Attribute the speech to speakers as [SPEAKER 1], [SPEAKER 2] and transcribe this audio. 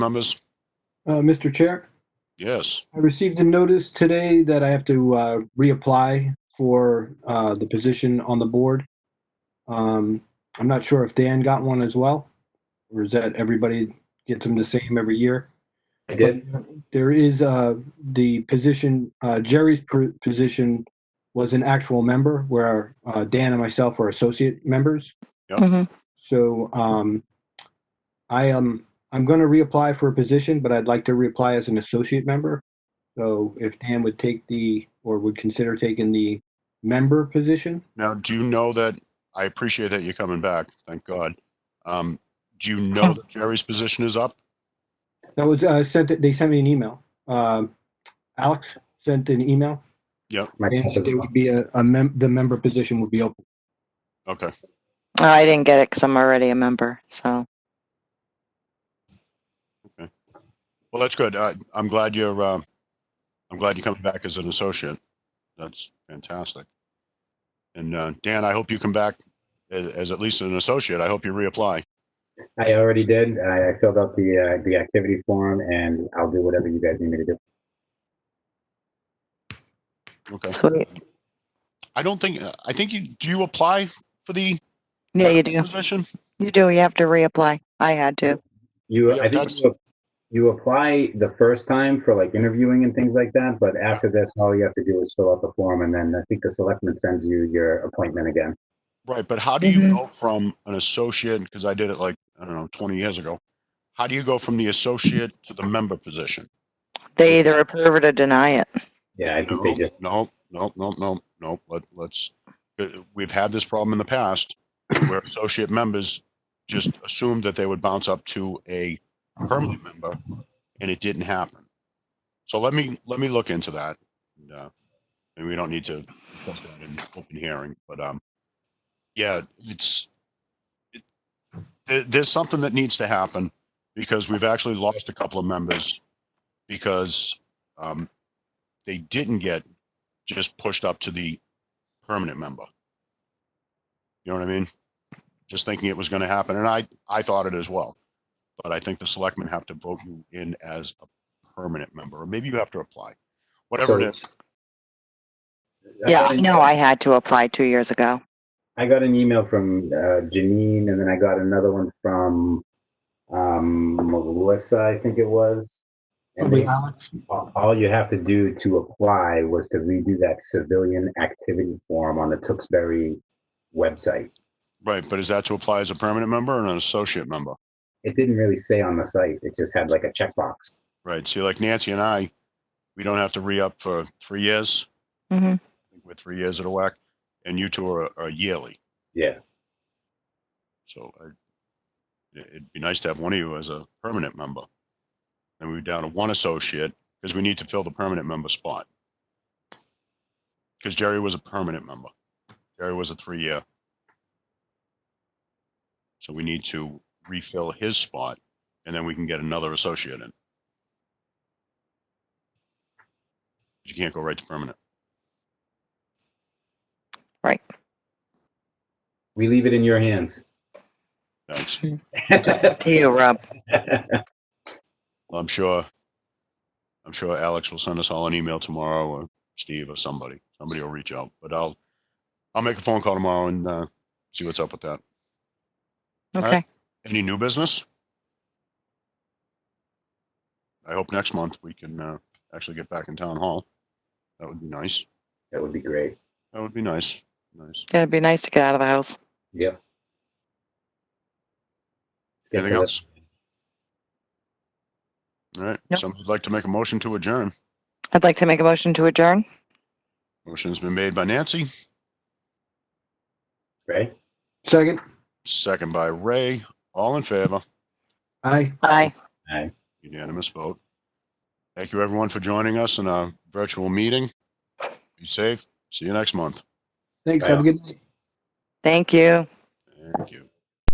[SPEAKER 1] numbers?
[SPEAKER 2] Uh, Mr. Chair,
[SPEAKER 1] Yes.
[SPEAKER 2] I received a notice today that I have to uh, reapply for uh, the position on the board. Um, I'm not sure if Dan got one as well, or is that everybody gets them the same every year?
[SPEAKER 3] I did.
[SPEAKER 2] There is uh, the position, uh, Jerry's pr- position was an actual member where uh, Dan and myself were associate members.
[SPEAKER 4] Mhm.
[SPEAKER 2] So um, I am, I'm going to reapply for a position, but I'd like to reapply as an associate member. So if Dan would take the, or would consider taking the member position,
[SPEAKER 1] Now, do you know that, I appreciate that you're coming back, thank God. Um, do you know that Jerry's position is up?
[SPEAKER 2] that was uh, sent, they sent me an email. Um, Alex sent an email and
[SPEAKER 3] Myself as
[SPEAKER 2] there
[SPEAKER 3] well.
[SPEAKER 2] would be a, a mem, the member position would be open.
[SPEAKER 1] Okay,
[SPEAKER 4] Oh, I didn't get it because I'm already a member. So
[SPEAKER 1] well, that's good. I, I'm glad you're, uh, I'm glad you're coming back as an associate. That's fantastic. And, uh, Dan, I hope you come back as, as at least an associate. I hope you reapply.
[SPEAKER 3] I already did. I I filled out the, uh, the activity form and I'll do whatever you guys need me to do.
[SPEAKER 1] Okay.
[SPEAKER 4] sweet.
[SPEAKER 1] I don't think, I think you, do you apply for the
[SPEAKER 4] Yeah, you do.
[SPEAKER 1] position?
[SPEAKER 4] You do. You have to reapply. I had to.
[SPEAKER 3] You,
[SPEAKER 1] Yeah,
[SPEAKER 3] I think
[SPEAKER 1] that's-
[SPEAKER 3] you, you apply the first time for like interviewing and things like that, but after this, all you have to do is fill out the form and then I think the selectman sends you your appointment again.
[SPEAKER 1] Right, but how do you
[SPEAKER 4] Mhm.
[SPEAKER 1] go from an associate? Because I did it like, I don't know, 20 years ago. How do you go from the associate to the member position?
[SPEAKER 4] They either approve it or deny it.
[SPEAKER 3] Yeah, I
[SPEAKER 1] No,
[SPEAKER 3] think they just,
[SPEAKER 1] no, no, no, no, no. Let, let's, uh, we've had this problem in the past where associate members just assumed that they would bounce up to a permanent member and it didn't happen. So let me, let me look into that. And, uh, and we don't need to discuss that in open hearing, but, um, yeah, it's, it- there, there's something that needs to happen because we've actually lost a couple of members because, um, they didn't get just pushed up to the permanent member. You know what I mean? Just thinking it was going to happen, and I I thought it as well, but I think the selectmen have to vote you in as a permanent member, or maybe you have to apply, whatever it is.
[SPEAKER 4] Yeah, I know. I had to apply two years ago.
[SPEAKER 3] I got an email from uh, Janine, and then I got another one from um, Melissa, I think it was.
[SPEAKER 4] Oh
[SPEAKER 3] And
[SPEAKER 2] Probably
[SPEAKER 3] they- all all you have to do to apply was to redo that civilian activity form on the Tewksbury website.
[SPEAKER 1] Right, but is that to apply as a permanent member or an associate member?
[SPEAKER 3] It didn't really say on the site; it just had like a checkbox.
[SPEAKER 1] Right. See, like Nancy and I, we don't have to re up for three years.
[SPEAKER 4] Mhm.
[SPEAKER 1] We're three years at a whack, and you two are, are yearly.
[SPEAKER 3] Yeah,
[SPEAKER 1] So I, it- it'd be nice to have one of you as a permanent member. And we're down to one associate because we need to fill the permanent member spot. Because Jerry was a permanent member. Jerry was a three-year. So we need to refill his spot and then we can get another associate in. You can't go right to permanent.
[SPEAKER 3] we leave it in your hands.
[SPEAKER 1] Thanks.
[SPEAKER 4] To you, Rob.
[SPEAKER 1] Well, I'm sure, I'm sure Alex will send us all an email tomorrow or Steve or somebody, somebody will reach out, but I'll, I'll make a phone call tomorrow and, uh, see what's up with that.
[SPEAKER 4] Okay.
[SPEAKER 1] Any new business? I hope next month we can, uh, actually get back in town hall. That would be nice.
[SPEAKER 3] that would be great.
[SPEAKER 1] That would be nice. Nice.
[SPEAKER 4] Yeah, it'd be nice to get out of the house.
[SPEAKER 3] Yep. Let's get to
[SPEAKER 1] Anything
[SPEAKER 3] the-
[SPEAKER 1] else? All right.
[SPEAKER 4] Nope.
[SPEAKER 1] Somebody'd like to make a motion to adjourn.
[SPEAKER 4] I'd like to make a motion to adjourn.
[SPEAKER 1] Motion's been made by Nancy,
[SPEAKER 3] Right?
[SPEAKER 2] Second,
[SPEAKER 1] second by Ray. All in favor?
[SPEAKER 2] aye.
[SPEAKER 4] Aye.
[SPEAKER 1] Unanimous vote. Thank you, everyone, for joining us in our virtual meeting. Be safe. See you next month.
[SPEAKER 2] Thanks, have a good night.
[SPEAKER 4] Thank you.
[SPEAKER 1] Thank you.